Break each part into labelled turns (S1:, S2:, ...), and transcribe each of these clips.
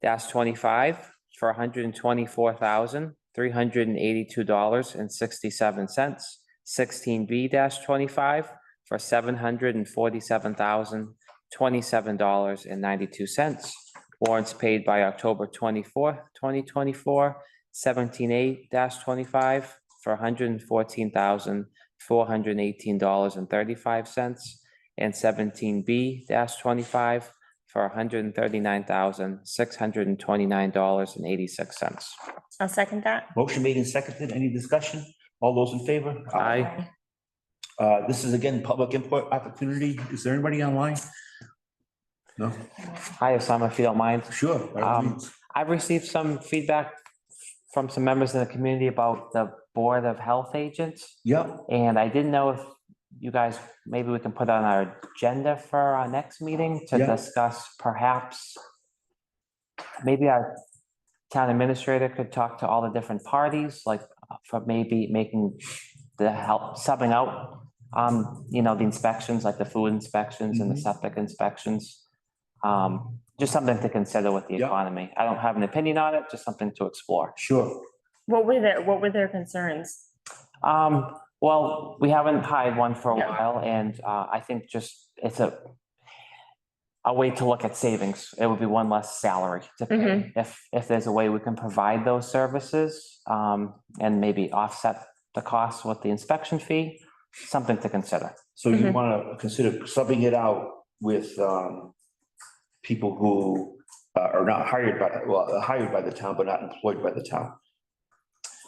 S1: dash twenty-five for hundred and twenty-four thousand, three hundred and eighty-two dollars and sixty-seven cents. Sixteen B dash twenty-five for seven hundred and forty-seven thousand, twenty-seven dollars and ninety-two cents. Warrants paid by October twenty-fourth, twenty twenty-four, seventeen A twenty-five for hundred and fourteen thousand, four hundred and eighteen dollars and thirty-five cents. And seventeen B twenty-five for hundred and thirty-nine thousand, six hundred and twenty-nine dollars and eighty-six cents.
S2: I'll second that.
S3: Motion made and seconded. Any discussion? All those in favor?
S1: Aye.
S3: Uh, This is again, public input opportunity. Is there anybody online? No,
S1: Hi, Osama, if you don't mind.
S3: sure. by all
S1: Um,
S3: means.
S1: I've received some feedback from some members in the community about the Board of Health Agents.
S3: Yep,
S1: And I didn't know if you guys, maybe we can put on our agenda for our next meeting to
S3: Yeah.
S1: discuss perhaps. Maybe our town administrator could talk to all the different parties, like uh, for maybe making the help, subbing out. Um, you know, the inspections, like the food inspections and the
S3: Mhm.
S1: septic inspections. Um, just something to consider with the
S3: Yeah.
S1: economy. I don't have an opinion on it, just something to explore.
S3: sure.
S2: What were their, what were their concerns?
S1: Um, well, we haven't hired one for a
S2: Yeah.
S1: while and, uh, I think just, it's a a way to look at savings. It would be one less salary to pay.
S2: Mhm.
S1: If, if there's a way we can provide those services, um, and maybe offset the cost with the inspection fee, something to consider.
S3: So you
S1: mm-hmm.
S2: Mhm.
S3: want to consider subbing it out with um, people who uh, are not hired by, well, uh, hired by the town, but not employed by the town.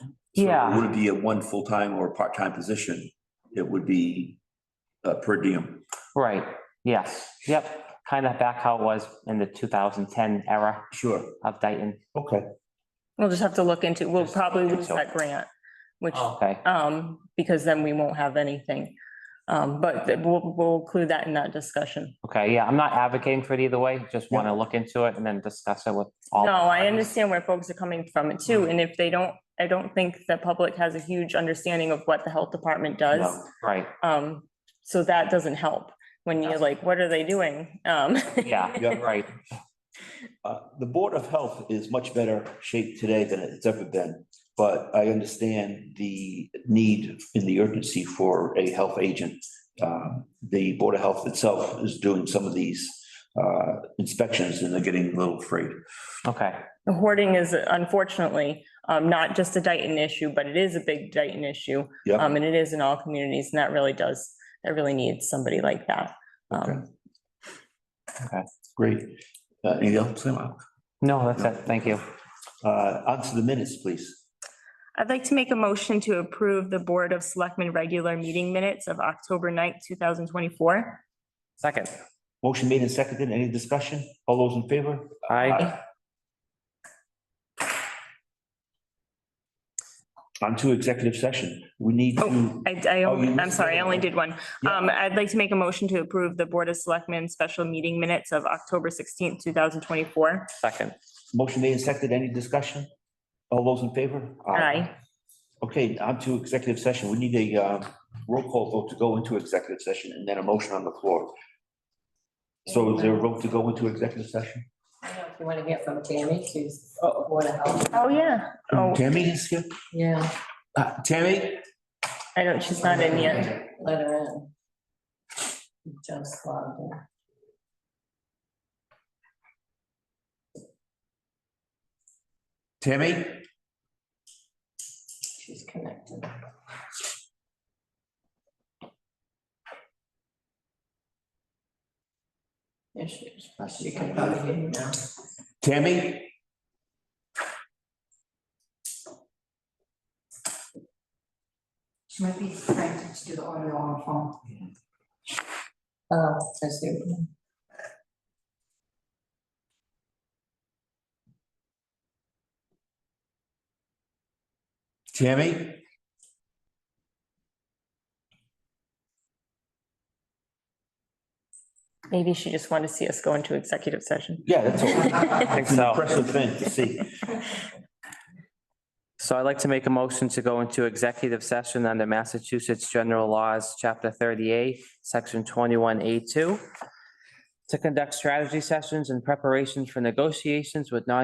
S3: So It
S1: Yeah,
S3: wouldn't be a one full-time or part-time position. It would be uh, per diem.
S1: right. Yes. Yep. Kind of back how it was in the 2010 era
S3: Sure.
S1: of Dayton.
S3: Okay.
S2: We'll just have to look into, we'll
S1: Just look
S2: probably lose
S1: into it. Oh.
S2: that grant, which,
S1: Okay.
S2: um, because then we won't have anything. Um, but th- we'll, we'll include that in that discussion.
S1: Okay. Yeah. I'm not advocating for it either way. Just
S3: Yeah.
S1: want to look into it and then discuss it with all. Mm-hmm.
S2: No, I
S1: parties.
S2: understand where folks are coming from it too, and if they don't, I don't think the public has a huge understanding of what the health department does.
S1: No, Right.
S2: Um, so that doesn't help when you're
S1: Yes.
S2: like, what are they doing? Um.
S1: Yeah.
S3: Yeah.
S1: Right.
S3: Uh, The Board of Health is much better shape today than it's ever been, but I understand the need in the urgency for a health agent. Um, The Board of Health itself is doing some of these uh, inspections and they're getting a little afraid.
S1: Okay.
S2: Hoarding is unfortunately um, not just a Dayton issue, but it is a big Dayton issue.
S3: Yep.
S2: Um, and it is in all communities and that really does, that really needs somebody like that.
S3: Okay.
S2: Um,
S1: Okay.
S3: Great. Uh, Anything else? Uh,
S1: No, that's it. Thank you.
S3: On to the minutes, please.
S2: I'd like to make a motion to approve the Board of Selectmen regular meeting minutes of October 9th, two thousand twenty-four.
S1: Second.
S3: Motion made and seconded. Any discussion? All those in favor?
S1: I,
S3: On to executive session. We need to.
S2: I, I,
S3: Oh, you
S2: only- I'm
S3: missed the
S2: sorry, I
S3: other
S2: only
S3: one.
S2: did one.
S3: Yeah.
S2: Um, I'd like to make a motion to approve the Board of Selectmen special meeting minutes of October sixteenth, two thousand twenty-four.
S1: second.
S3: Motion made and seconded. Any discussion? All those in favor?
S2: Aye.
S3: Okay, on to executive session. We need a uh, roll call vote to go into executive session and then a motion on the floor. So is there a vote to go into executive session?
S4: I don't know if you want to hear from Tammy, she's, oh, Board of Health.
S2: Oh, yeah. Oh,
S3: Tammy is here.
S4: Yeah,
S3: Uh, Tammy?
S2: I don't, she's not in yet.
S4: let her in. Just logged in.
S3: Tammy?
S4: she's connected. There she is, she can log in now.
S3: Tammy?
S4: She might be trying to do the audio on her phone. Oh, I see.
S3: Tammy?
S2: Maybe she just wanted to see us go into executive session.
S3: Yeah, that's all.
S1: I think
S3: It's an
S1: so.
S3: impressive thing to see.
S1: So I'd like to make a motion to go into executive session under Massachusetts General Laws, Chapter 38, Section 21A2, to conduct strategy sessions in preparation for negotiations with non